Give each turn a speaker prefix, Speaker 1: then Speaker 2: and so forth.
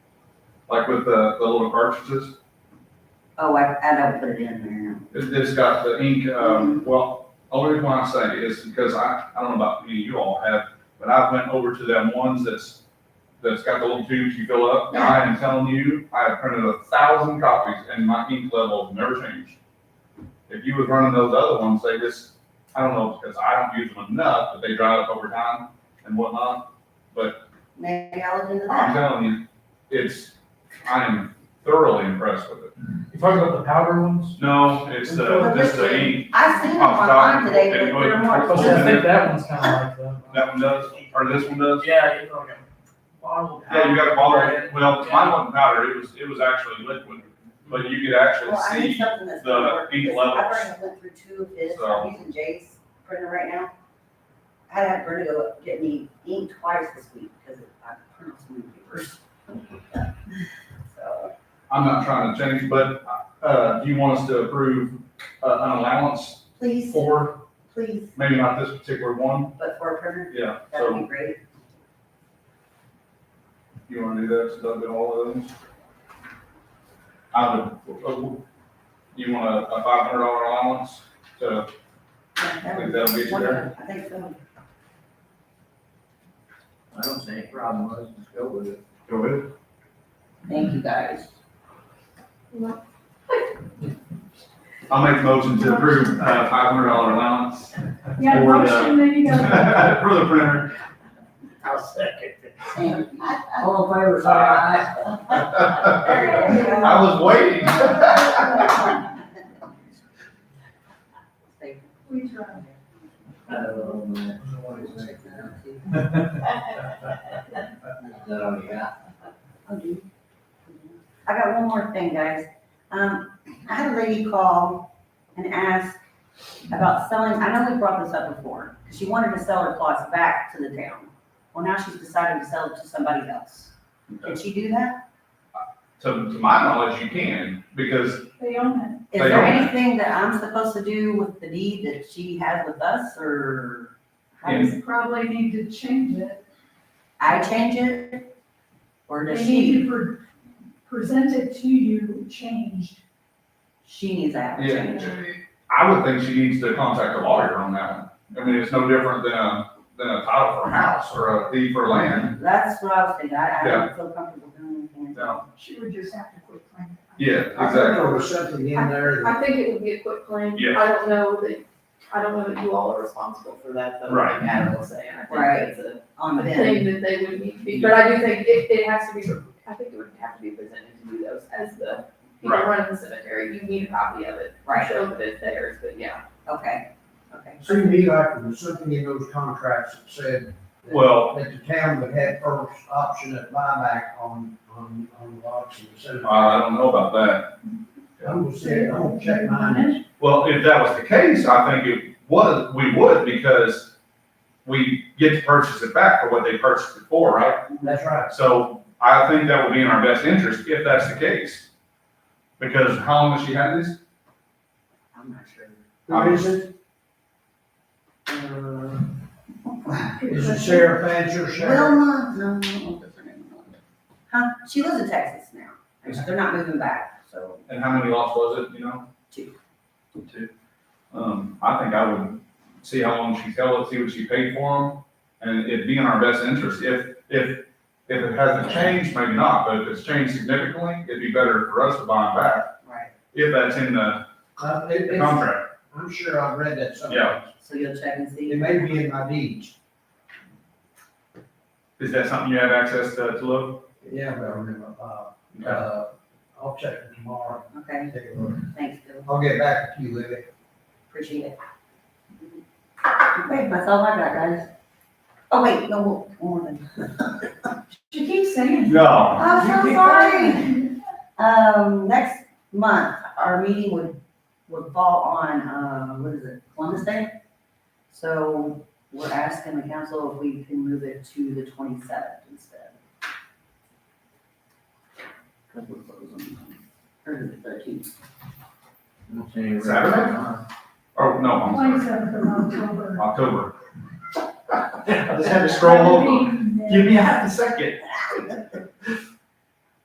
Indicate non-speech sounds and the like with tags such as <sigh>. Speaker 1: like with the, the little cartridges.
Speaker 2: Oh, I, I don't put it in there.
Speaker 1: It, it's got the ink, um, well, only reason why I say is because I, I don't know about you, you all have, but I went over to them ones that's, that's got the little tubes you fill up. And I am telling you, I have printed a thousand copies and my ink level never changed. If you was running those other ones, they just, I don't know, because I don't use them enough, but they dry up over time and whatnot. But
Speaker 2: Maybe I'll look into
Speaker 1: I'm
Speaker 2: that.
Speaker 1: telling you, it's, I am thoroughly impressed with it.
Speaker 3: You talking about the powder ones?
Speaker 1: No, it's the,
Speaker 2: But
Speaker 1: just the
Speaker 2: listen,
Speaker 1: ink.
Speaker 2: I seen them
Speaker 1: I'm
Speaker 2: online
Speaker 1: sorry.
Speaker 2: today,
Speaker 1: Okay,
Speaker 2: but
Speaker 1: wait.
Speaker 2: they're
Speaker 3: I
Speaker 1: Oh,
Speaker 2: more.
Speaker 3: suppose
Speaker 1: yeah.
Speaker 3: I think that one's kinda like
Speaker 1: That one does, or this one does?
Speaker 3: Yeah, you know, like a bottle.
Speaker 1: Yeah, you got a bottle, well, mine wasn't powder, it was, it was actually liquid, but you could actually
Speaker 2: Well, I need
Speaker 1: see,
Speaker 2: something that's.
Speaker 1: the
Speaker 2: gonna work,
Speaker 1: ink
Speaker 2: because I
Speaker 1: levels.
Speaker 2: already went through two of his,
Speaker 1: So.
Speaker 2: I'm using Jay's printer right now. I had her to go get me ink twice this week because I printed so many
Speaker 1: <laughs>
Speaker 2: papers. So,
Speaker 1: I'm not trying to change, but, uh, do you want us to approve, uh, an allowance
Speaker 2: please,
Speaker 1: for,
Speaker 2: please,
Speaker 1: maybe not this particular one?
Speaker 2: but for a printer,
Speaker 1: Yeah,
Speaker 2: that would
Speaker 1: so
Speaker 2: be great.
Speaker 1: you wanna do that, so that'll be all of those? I would, uh, you want a, a five hundred dollar allowance to,
Speaker 2: Yeah,
Speaker 1: I
Speaker 2: that
Speaker 1: think
Speaker 2: would
Speaker 1: that'll
Speaker 2: be
Speaker 1: get you there?
Speaker 2: wonderful. I think so.
Speaker 4: I don't see any problem with it, just go with it.
Speaker 1: Go ahead.
Speaker 2: Thank you, guys.
Speaker 1: I'll make a motion to approve, uh, five hundred dollar allowance
Speaker 5: Yeah,
Speaker 1: Or the-
Speaker 5: motion, there you
Speaker 1: for <laughs>
Speaker 5: go.
Speaker 1: the printer.
Speaker 4: I'll second it.
Speaker 2: Thank you.
Speaker 4: All in favor, say aye.
Speaker 2: <laughs> There you go.
Speaker 1: I was waiting. <laughs>
Speaker 2: Thank
Speaker 5: We tried.
Speaker 4: Oh, man. Oh, yeah.
Speaker 2: you. I got one more thing, guys. Um, I had a lady call and ask about selling, I know we brought this up before, because she wanted to sell her plots back to the town. Well, now she's decided to sell it to somebody else. Did she do that?
Speaker 1: To, to my knowledge, you can, because
Speaker 5: They own
Speaker 2: Is
Speaker 1: They
Speaker 2: there
Speaker 1: don't.
Speaker 2: anything that I'm supposed to do with the deed that she has with us, or how does-
Speaker 5: it. Probably need to change it.
Speaker 2: I change it? Or does
Speaker 5: They
Speaker 2: she,
Speaker 5: need to pre- present it to you changed.
Speaker 2: she needs that
Speaker 1: Yeah.
Speaker 2: change?
Speaker 1: I would think she needs to contact a lawyer on that one. I mean, it's no different than a, than a title for a house or a deed for land.
Speaker 2: That's what I was thinking, I, I
Speaker 1: Yeah.
Speaker 2: don't feel comfortable doing anything.
Speaker 1: No.
Speaker 5: She would just have to quit playing.
Speaker 1: Yeah,
Speaker 4: There
Speaker 1: exactly.
Speaker 4: was something in there that,
Speaker 6: I think it would be a quick claim.
Speaker 1: Yeah.
Speaker 6: I don't know that, I don't know that you all are responsible for that though.
Speaker 1: Right.
Speaker 6: I will say, I
Speaker 2: Right.
Speaker 6: think that's a
Speaker 2: On the
Speaker 6: a
Speaker 2: bin.
Speaker 6: thing that they would need to be, but I do think it, it has to be, I think it would have to be presented to you those as the, you know,
Speaker 1: Right.
Speaker 6: running the cemetery, you need a copy of it. to
Speaker 2: Right,
Speaker 6: Show that it's theirs, but yeah.
Speaker 2: okay, okay.
Speaker 4: seemed to me like there was something in those contracts that said that-
Speaker 1: Well,
Speaker 4: that the town would have first option at buyback on, on, on lots and so.
Speaker 1: I don't know about that.
Speaker 4: I'm gonna say, I'm gonna check mine.
Speaker 1: Well, if that was the case, I think it was, we would because we get to purchase it back for what they purchased it for, right?
Speaker 4: That's right.
Speaker 1: So I think that would be in our best interest if that's the case. Because how long has she had this?
Speaker 2: I'm not sure.
Speaker 4: What is it? Uh, Is it Sarah Fancher, Sarah?
Speaker 2: Wilma, no, no, what's her name? Huh, she lives in Texas now, they're not moving back, so.
Speaker 1: And how many lots was it, you know?
Speaker 2: Two.
Speaker 1: Two. Um, I think I would see how long she's held it, see what she paid for them, and it'd be in our best interest. If, if, if it hasn't changed, maybe not, but if it's changed significantly, it'd be better for us to buy them back,
Speaker 2: Right.
Speaker 1: if that's in the
Speaker 4: Uh, it-
Speaker 1: the
Speaker 4: it's-
Speaker 1: contract.
Speaker 4: I'm sure I've read that somewhere.
Speaker 1: Yeah.
Speaker 2: So you'll check and see?
Speaker 4: It may be in my deeds.
Speaker 1: Is that something you have access to, to look?
Speaker 4: Yeah, but I remember, uh, uh, I'll check it tomorrow.
Speaker 2: Okay,
Speaker 4: and Take a look.
Speaker 2: thanks, Bill,
Speaker 4: I'll get back to you, Libby.
Speaker 2: appreciate it. Okay, that's all I got, guys. Oh, wait, no, one more thing.
Speaker 5: She keeps saying.
Speaker 1: No.
Speaker 2: I'm so sorry. Um, next month, our meeting would, would fall on, uh, what is it, Columbus Day? So we're asking the council if we can move it to the twenty-seventh instead. Cause we're closing, or the thirteenth.
Speaker 1: Saturday? Oh, no, I'm sorry,
Speaker 5: Twenty-seventh of
Speaker 1: October.
Speaker 5: October.
Speaker 1: <laughs> I just had to scroll over.
Speaker 5: Meeting
Speaker 1: Give
Speaker 5: minutes.
Speaker 1: me half a second.